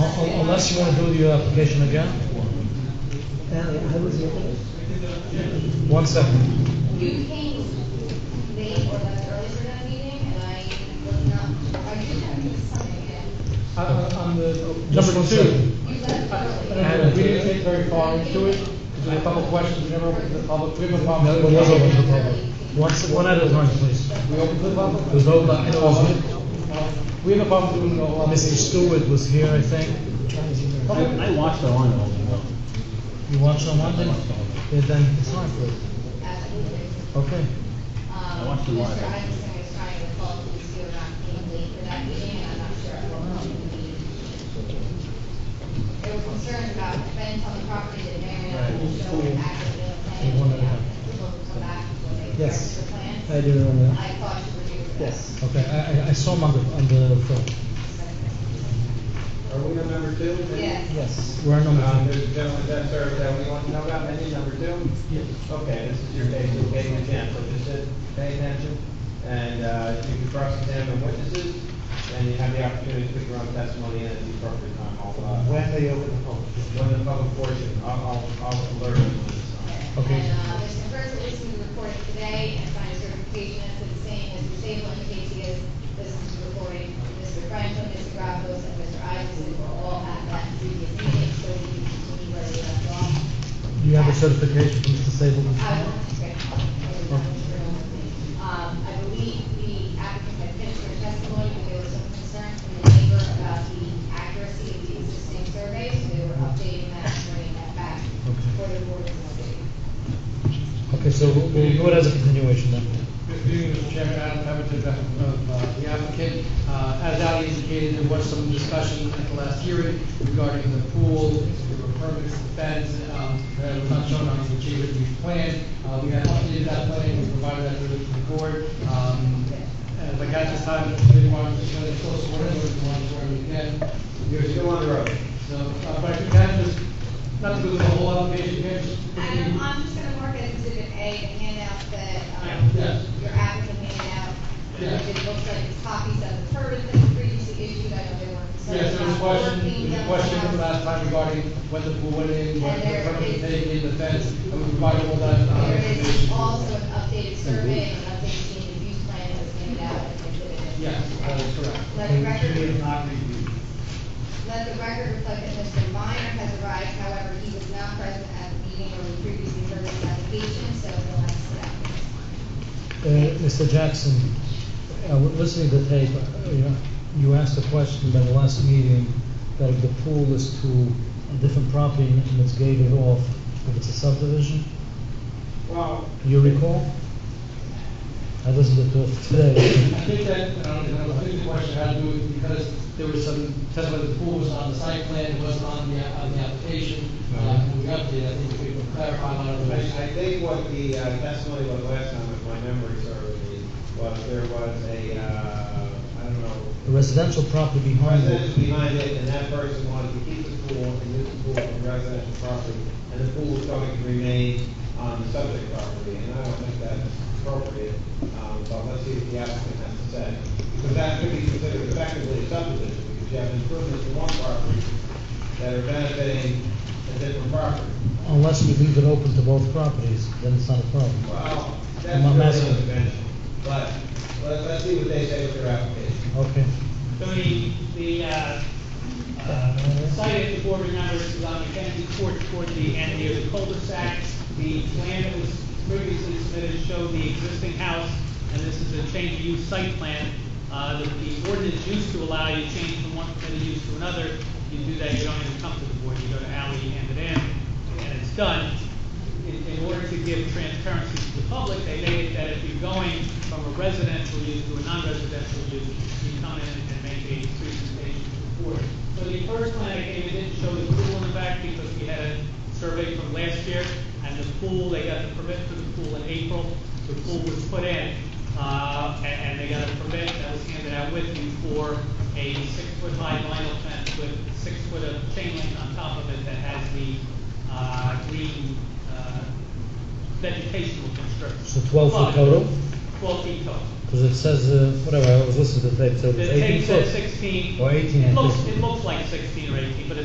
Unless you want to do the application again? I was here. One second. You came late or left early for that meeting, and I was not, I did have something, and I- I- Uh, On the, Just number one two. second. you left I- I early. don't know, We didn't get very far into it, because we had a couple of questions, we never opened the public, we opened the No, public. it was open to the public. Once, one at a time, please. We opened to the public? There's no, bu- it was- Well, We have a problem doing the. Mr. Stewart was here, I think. Okay. I watched the line all the way. You watched on Monday? Yeah, Then it's not good. As I did. Okay. Um, watched the live. Mr. Isaacson was trying to call police, you were not came late for that meeting, and I'm not sure if we'll come to the meeting. There were concerns about fence on the property that Marion and Joe had acted on plan. He wanted to have- People would come back when they Yes. corrected the plan. I do remember I thought you were due for that. Yes. Okay, I, I- I saw him on the, on the phone. Are we on number two? Yes. Yes. We're on Um, number there's a gentleman that served that we want to know about, any number two? Yes. Okay, this is your case, you're getting a chance, so just sit, pay attention, and, uh, you can cross-examine witnesses, and you have the opportunity to put your own testimony in at the appropriate time, I'll, uh, When they open the public. when the public portion, I'll, I'll, I'll alert you when it's on. Okay. And, uh, Mr. First Policeman reported today and signed certification as to the same as Mr. Sable indicates he has listened to the recording. Mr. Franklin, Mr. Grappos, and Mr. Isaacson were all at that previous meeting, so we can continue where they left off. Do you have a certification from Mr. Sable? I will, okay. Um, I believe the applicant had finished their testimony, but there was some concern from the neighbor about the accuracy of the existing survey, so they were updating that, and bringing that back Okay. for the board to update. Okay, so we'll we'll do it as a continuation then. Good evening, Mr. Chairman, Adam Pemberton, on behalf of uh, the applicant. Uh, As Ali indicated, there was some discussion at the last hearing regarding the pool, there were permits, the fence, um, that was not shown on the achievement review plan. Uh, We had updated that plan, we provided that to the to the board. Um, And like at this time, if they wanted to show the close order, we wanted to order again. You're still on the road. So, uh, but I think that just, not to go through the whole application here, just. Adam, I'm just gonna mark it as exhibit A, the handout that, Yeah. um, your applicant handed out. Yeah. It looks like copies of the permit that was previously issued, I know there were. concerns Yes, there was a about question, working there was a them question out. from last time regarding whether the pool went in, whether the And there permit is- taken in the fence, and we provided all that uh, There is information. also an updated survey and an updated change of use plan that was handed out as exhibit A. Yes, that is correct. Let the record, let the record reflect that Mr. Viner has arrived, however, he was not present at the meeting where we previously heard his application, so he'll have to sit out. Uh, Mr. Jackson, uh, listening to the tape, uh, you know, you asked a question by the last meeting that if the pool is to a different property and it's gated off, if it's a subdivision, Well, you recall? I listened to it today. I think that, and I don't know, I think the question had to do with, because there was some testimony that the pool was on the site plan, it wasn't on the, on the application. Uh, we updated, I think we can clarify a lot of I, those. I think what the uh, testimony was last time, if my memory serves me, was there was a, uh, I don't know, A residential property behind residents it. behind it, and that person wanted to keep the pool and use the pool for residential property, and the pool was going to remain on the subject property, and I don't think that's appropriate, um, but let's see what the applicant has to say. Because that could be considered effectively a subdivision, because you have improvements to one property that are benefiting a different property. Unless we leave it open to both properties, then it's not a problem. Well, I'm not that's asking. really conventional, but let's, let's see what they say with their application. Okay. So the, the, uh, uh, site, if the board remembers, is on Mackenzie Court toward the end near the cul-de-sac. The plan that was previously submitted showed the existing house, and this is a change of use site plan. Uh, the, the ordinance used to allow you to change from one permitted use to another. You do that, you don't even come to the board, you go to Ally, you hand it in, and it's done in, in order to give transparency to the public, they made it that if you're going from a residential use to a non-residential use, you come in and make a presentation to the board. So the first plan I gave, it didn't show the pool in the back because we had a survey from last year, and the pool, they got the permit for the pool in April, the pool was put in, uh, and, and they got a permit that was handed out with you for a six-foot high vinyl fence with six foot of chain link on top of it that has the uh, green uh, vegetational construction. So 12 foot total? Twelve feet total. Because it says, uh, whatever, I was listening to the tape, so The it's 18 tape foot. says sixteen. Or 18 at It looks, least. it looks like sixteen or eighteen, but